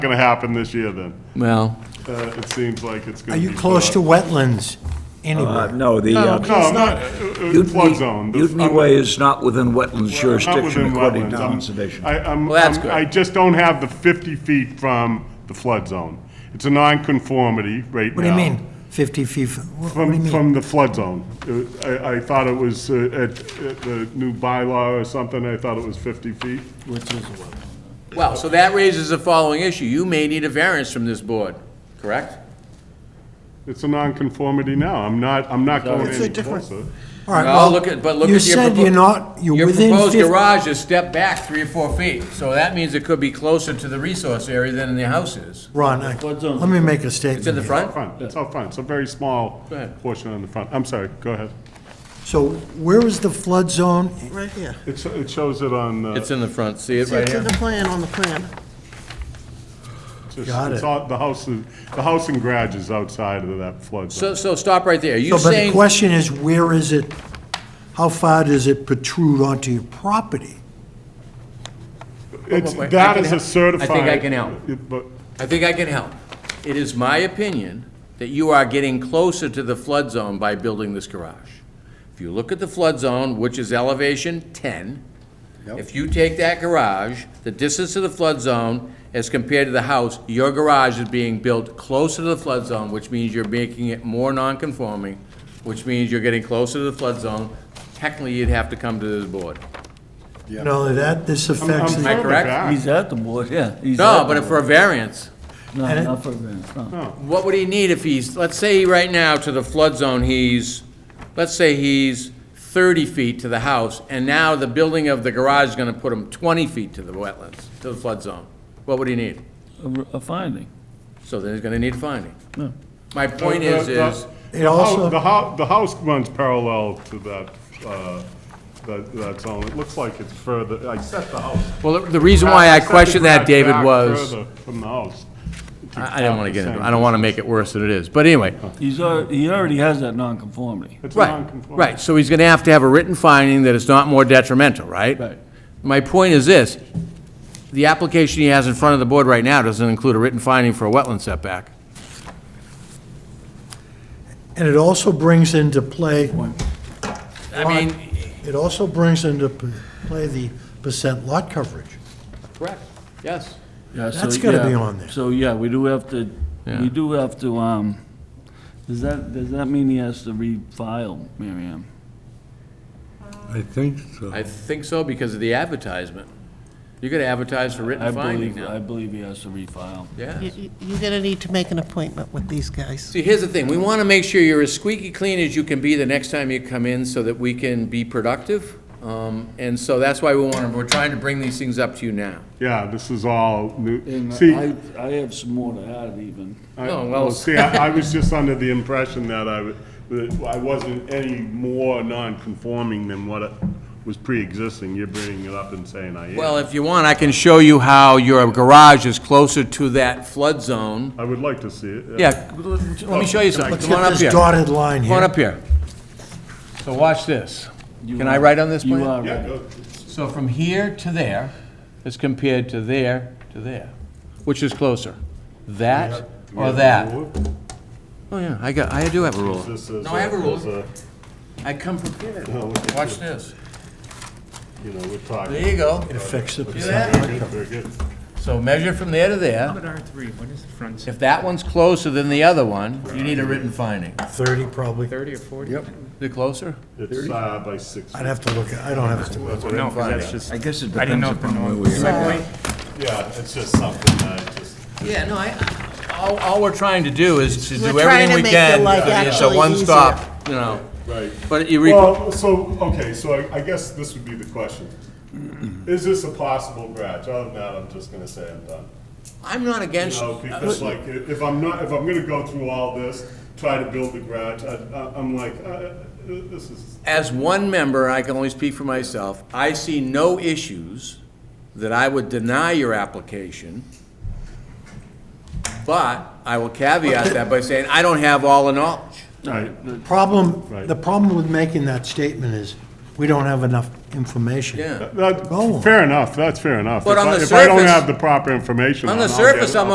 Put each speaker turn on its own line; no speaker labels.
going to happen this year then.
Well,
Uh, It seems like it's
Are
going to be.
you close to
flooded.
wetlands
Uh,
anywhere?
No, the, uh,
No, I'm not, uh, uh,
Mutiny-
flood zone. The-
Mutiny
I'm-
Way is not within wetlands
I'm not within
jurisdiction according
wetlands.
to
I'm-
conservation.
I, I'm,
Well, that's
I'm-
good.
I just don't have the 50 feet from the flood zone. It's a nonconformity right now.
What do you mean, 50 feet? What what do you
From,
mean?
from the flood zone. Uh, I, I thought it was uh, at at the new bylaw or something, I thought it was 50 feet.
well, so that raises the following issue. You may need a variance from this board, correct?
It's a nonconformity now. I'm not, I'm not going
It's a
any
different-
closer.
All right,
Well, look at, but look at your.
You said
propo-
you're not, you're
Your
within
proposed
50.
garage is stepped back three or four feet, so that means it could be closer to the resource area than the house is.
Ron, I- let me make a statement.
It's in the
here.
front?
Front, it's all front. It's a very small
Go ahead.
portion on the front. I'm sorry, go ahead.
So where is the flood zone?
Right here.
It, sho- it shows it on, uh,
It's in the front, see it
See,
right
it's in
here?
the plan, on the plan.
Just-
Got
it's
it.
all- The house, is- the house and garage is outside of that flood
So,
zone.
so stop right there. Are you
So, but the
saying,
question is, where is it? How far does it protrude onto your property?
It's,
wait, wait, I
that
can
is
help. I
a
think
certified.
I can help.
it- But,
I think I can help. It is my opinion that you are getting closer to the flood zone by building this garage. If you look at the flood zone, which is elevation ten, if you take that garage, the distance to the flood zone as compared to the house, your garage is being built closer to the flood zone, which means you're making it more non-conforming, which means you're getting closer to the flood zone. Technically, you'd have to come to this board.
Not only that, this
I'm
affects, the-
further
correct?
back.
He's at the board, yeah. he's
No,
at
but
the
if for a variance.
board. No, not for a variance, no.
What would he need if he's, let's say right now to the flood zone, he's, let's say he's 30 feet to the house, and now the building of the garage is going to put him 20 feet to the wetlands, to the flood zone. What would he need?
A- A finding.
So then he's going to need finding. My point
The-
is,
the-
is,
it also.
The house, the house runs parallel to that, uh, that, that zone. It looks like it's further, I set the house.
well, the reason why I
set the
questioned that,
garage
David,
back
was,
further From the house.
I I didn't want to get into it.
Same.
I don't want to make it worse than it is. But anyway,
He's, al- he already has that nonconformity.
It's
Right,
non-conforming.
right, so he's gonna have to have a written finding that it's not more detrimental, right?
Right.
My point is this, the application he has in front of the board right now doesn't include a written finding for a wetland setback.
And it also brings into play,
I mean,
it also brings into p- play the percent lot coverage.
correct, yes.
Yeah, so,
That's gotta be
yeah.
on there.
So, yeah, we do have to,
Yeah.
we do have to, um, does that, does that mean he has to refile, Mary Ann?
I think so.
I think so because of the advertisement. You're gonna advertise for
I
written finding
believe, I
now,
believe he has to refile.
yeah.
You- you- You're gonna need to make an appointment with these guys.
See, here's the thing, we wanna make sure you're as squeaky clean as you can be the next time you come in so that we can be productive. Um, and so that's why we wanna, we're trying to bring these things up to you now.
Yeah, this is all new.
And
See,
I, I have some more to add even.
I-
No, well-
well, see, I, I was just under the impression that I, w- that I wasn't any more non-conforming than what it was pre-existing. You're bringing it up and saying I am.
Well, if you want, I can show you how your garage is closer to that flood zone.
I would like to see it.
Yeah, let me show you something.
Let's
Come on
get
up
this
here.
dotted line
Come on
here.
up here. So watch this.
You
Can I
are-
write on this plan?
You are
Yeah,
right.
go.
So from here to there is compared to there to there. Which is closer? That or that? Oh, yeah, I got, I do have a ruler.
This is.
No, I have a
is
ruler. I come prepared.
No, look at
Watch this.
You know, we're
There
talking.
you go.
It affects the
See
percent.
that?
Very good, very good.
So measure from there to there.
But R3, what is the front,
If that one's closer than the other one, you need a written finding.
30 probably.
30 or 40? Yep.
The closer?
It's uh, by six.
I'd have to look, at. I don't have to.
No, 'cause that's just,
I guess it
I
depends
didn't know if the
upon where
norm.
we are.
Yeah, it's just something that I just.
Yeah, no, I, all, all we're trying to do is to
We're
do everything
trying to
we
make their
can.
life
so It's a
actually
one-stop, you know.
Right.
But you, re-
Well, so, okay, so I, I guess this would be the question. Is this a possible garage? Other than that, I'm just gonna say I'm done.
I'm not
You
against,
know, because like, i- if I'm not, if I'm gonna go through all this, try to build the garage, I, I- I'm like, uh, uh, this is,
as one member, I can only speak for myself, I see no issues that I would deny your application. But I will caveat that by saying, I don't have all the knowledge.
right,
Problem,
Right.
the problem with making that statement is, we don't have enough information.
Yeah.
that,
Go on.
fair enough, that's fair enough.
But
If
on
I-
the
If I don't
surface-
have the proper information.
on the
I'll get-
surface, I'm